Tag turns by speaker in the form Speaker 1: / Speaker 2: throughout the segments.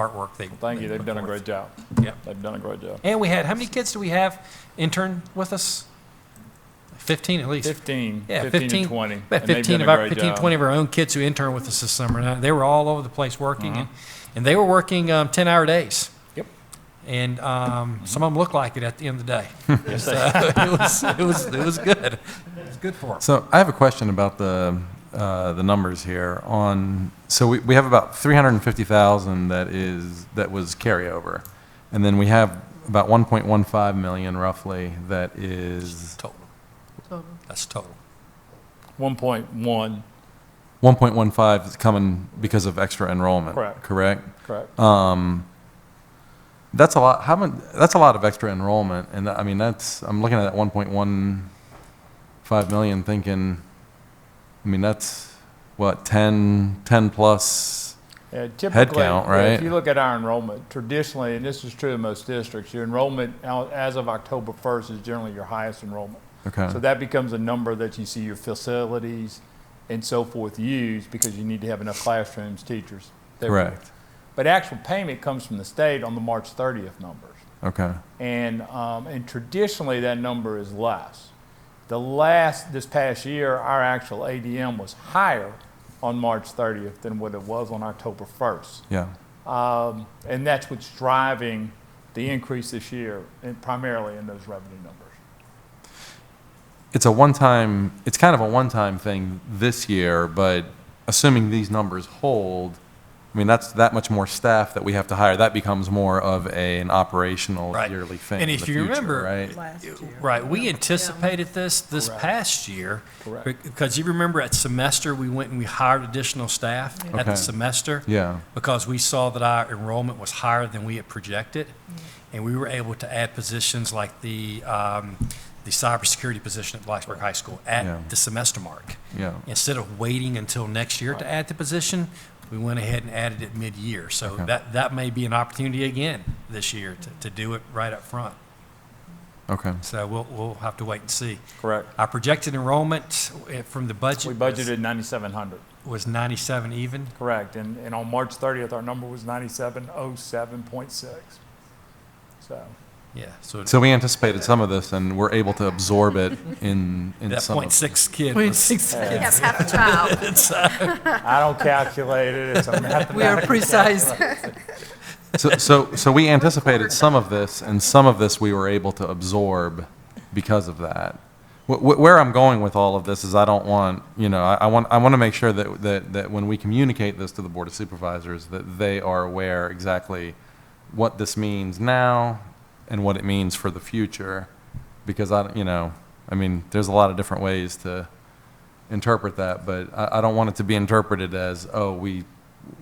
Speaker 1: artwork they.
Speaker 2: Thank you,
Speaker 1: they
Speaker 2: they've
Speaker 1: put
Speaker 2: done a
Speaker 1: forth.
Speaker 2: great job.
Speaker 1: Yeah.
Speaker 2: They've done a great job.
Speaker 1: And we had, how many kids do we have intern with us? 15 at least.
Speaker 2: 15,
Speaker 1: Yeah,
Speaker 2: 15 to
Speaker 1: About
Speaker 2: 20. and they've
Speaker 1: 15
Speaker 2: done a
Speaker 1: of our,
Speaker 2: great
Speaker 1: 15,
Speaker 2: job.
Speaker 1: 20 of our own kids who interned with us this summer. And I- they were all over the place working, and, and they were working um, 10 hour days.
Speaker 2: Uh-huh. Yep. Mm-hmm.
Speaker 1: And um, some of them looked like it at the end of the day.
Speaker 2: Yes,
Speaker 1: so
Speaker 2: they-
Speaker 1: it, was, it, was, it was good. It was good for them.
Speaker 3: So I have a question about the, uh, the numbers here on, so we, we have about 350,000 that is, that was carryover. And then we have about 1.15 million roughly that is
Speaker 1: Total. That's total.
Speaker 2: 1.1,
Speaker 3: 1.15 is coming because of extra enrollment.
Speaker 2: Correct.
Speaker 3: Correct?
Speaker 2: correct.
Speaker 3: That's a lot, how mon- that's a lot of extra enrollment. And I mean, that's, I'm looking at that 1.15 million thinking, I mean, that's what, 10, 10 plus
Speaker 2: Yeah, Typically,
Speaker 3: count,
Speaker 2: yeah, if
Speaker 3: right?
Speaker 2: you look at our enrollment, traditionally, and this is true in most districts, your enrollment out- as of October 1st is generally your highest enrollment.
Speaker 3: Okay.
Speaker 2: So that becomes a number that you see your facilities and so forth use because you need to have enough classrooms, teachers. that-
Speaker 3: Correct.
Speaker 2: But actual payment comes from the state on the March 30th numbers.
Speaker 3: Okay.
Speaker 2: and um, and traditionally that number is less. The last this past year, our actual ADM was higher on March 30th than what it was on October 1st,
Speaker 3: Yeah.
Speaker 2: um, and that's what's driving the increase this year, and primarily in those revenue numbers.
Speaker 3: It's a one-time, it's kind of a one-time thing this year, but assuming these numbers hold, I mean, that's that much more staff that we have to hire. That becomes more of a, an operational
Speaker 1: Right.
Speaker 3: yearly thing.
Speaker 1: And
Speaker 3: in
Speaker 1: if
Speaker 3: the
Speaker 1: you
Speaker 3: future,
Speaker 1: remember-
Speaker 3: right?
Speaker 4: last year.
Speaker 1: Right, we anticipated this this past year.
Speaker 2: Correct.
Speaker 1: bec- Because you remember at semester, we went and we hired additional staff at the
Speaker 3: Okay.
Speaker 1: semester.
Speaker 3: Yeah.
Speaker 1: Because we saw that our enrollment was higher than we had projected. And we were able to add positions like the, um, the cybersecurity position at Blacksburg High School
Speaker 3: Yeah.
Speaker 1: at the semester mark.
Speaker 3: Yeah.
Speaker 1: Instead of waiting until next year to add the position, we went ahead and added it mid-year. So
Speaker 3: Okay.
Speaker 1: that, that may be an opportunity again this year to, to do it right up front.
Speaker 3: Okay.
Speaker 1: So we'll, we'll have to wait and see.
Speaker 2: Correct.
Speaker 1: Our projected enrollment eh, from the budget.
Speaker 2: We
Speaker 1: was-
Speaker 2: budgeted 9,700.
Speaker 1: Was 97 even.
Speaker 2: Correct, and and on March 30th, our number was 9707.6. So
Speaker 1: Yeah, so
Speaker 3: So we anticipated some of this, and we're able to absorb it in in
Speaker 1: that
Speaker 3: some.
Speaker 1: point
Speaker 3: of,
Speaker 1: six kid was.
Speaker 4: We have half a child.
Speaker 2: I don't calculate it. It's a mathematical
Speaker 4: We are precise.
Speaker 3: so, so so we anticipated some of this, and some of this we were able to absorb because of that. Wh- wh- Where I'm going with all of this is I don't want, you know, I I want, I want to make sure that, that, that when we communicate this to the Board of Supervisors, that they are aware exactly what this means now and what it means for the future. Because I, don't- you know, I mean, there's a lot of different ways to interpret that, but I, I don't want it to be interpreted as, oh, we,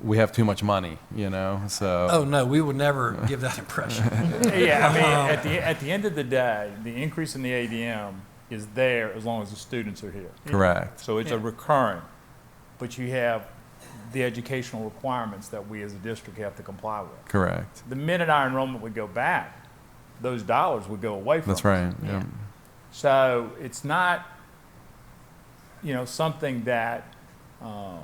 Speaker 3: we have too much money, you know, so.
Speaker 1: Oh, no, we would never give that impression.
Speaker 2: Yeah, I mean,
Speaker 3: Um,
Speaker 2: at the, at the end of the day, the increase in the ADM is there as long as the students are here.
Speaker 3: Correct.
Speaker 2: So it's a recurring, but you have the educational requirements that we as a district have to comply with.
Speaker 3: Correct.
Speaker 2: The minute our enrollment would go back, those dollars would go away from us.
Speaker 3: That's right. Yeah.
Speaker 2: So it's not, you know, something that um,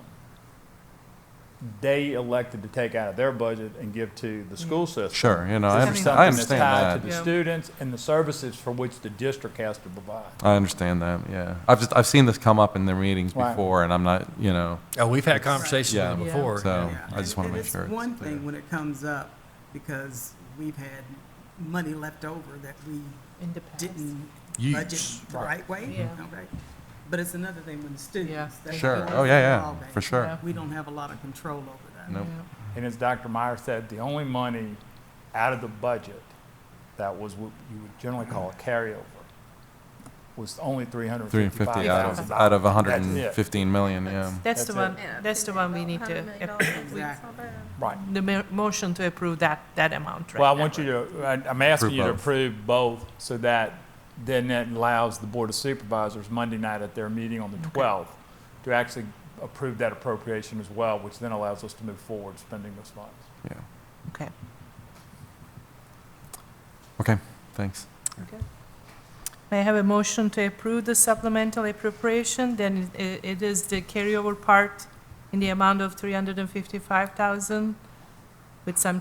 Speaker 2: they elected to take out of their budget and give to the school system.
Speaker 3: Mm. Sure. You know, I
Speaker 2: This is
Speaker 3: understand, I
Speaker 2: something that's
Speaker 3: understand
Speaker 2: tied to
Speaker 3: that.
Speaker 2: the
Speaker 4: Yeah.
Speaker 2: students and the services for which the district has to provide.
Speaker 3: I understand that. Yeah. I've just, I've seen this come up in their meetings
Speaker 2: Right.
Speaker 3: before and I'm not, you know,
Speaker 1: Oh, we've had conversations with
Speaker 3: Yeah.
Speaker 1: them
Speaker 4: Yeah.
Speaker 1: before.
Speaker 3: so
Speaker 5: Yeah.
Speaker 3: I just want
Speaker 5: And-
Speaker 3: to
Speaker 5: and
Speaker 3: make
Speaker 5: it's
Speaker 3: sure. it's
Speaker 5: one
Speaker 3: clear.
Speaker 5: thing when it comes up, because we've had money left over that we didn't budget
Speaker 1: Use.
Speaker 5: the right way,
Speaker 4: Yeah.
Speaker 5: okay? But it's another thing when the
Speaker 4: Yeah.
Speaker 5: students. that's
Speaker 3: Sure.
Speaker 5: the
Speaker 3: Oh, yeah, yeah,
Speaker 5: drawback.
Speaker 3: for sure.
Speaker 4: Yeah.
Speaker 5: We don't have a lot of control over that.
Speaker 3: Nope.
Speaker 2: And as Dr. Meyer said, the only money out of the budget that was what you would generally call a carryover was only three hundred
Speaker 3: Three and
Speaker 2: fifty-five
Speaker 3: fifty
Speaker 2: thousand
Speaker 3: out
Speaker 2: dollars.
Speaker 3: of, out of hundred and fifteen million. Yeah.
Speaker 6: That's the
Speaker 2: That's
Speaker 6: one,
Speaker 2: it.
Speaker 6: that's the one we need to, approve.
Speaker 5: Exactly.
Speaker 2: Right.
Speaker 6: the mo- motion to approve that, that amount, right?
Speaker 2: Well, I
Speaker 6: that
Speaker 2: want you
Speaker 6: one.
Speaker 2: to, I- I'm asking
Speaker 3: Approve
Speaker 2: you to
Speaker 3: both.
Speaker 2: approve both so that then that allows the Board of Supervisors Monday night at their meeting on the 12th to actually approve that appropriation as well, which then allows us to move forward spending those funds.
Speaker 3: Yeah.
Speaker 6: Okay.
Speaker 3: Okay. Thanks.
Speaker 6: May I have a motion to approve the supplemental appropriation, then it it is the carryover part in the amount of three hundred and fifty-five thousand with some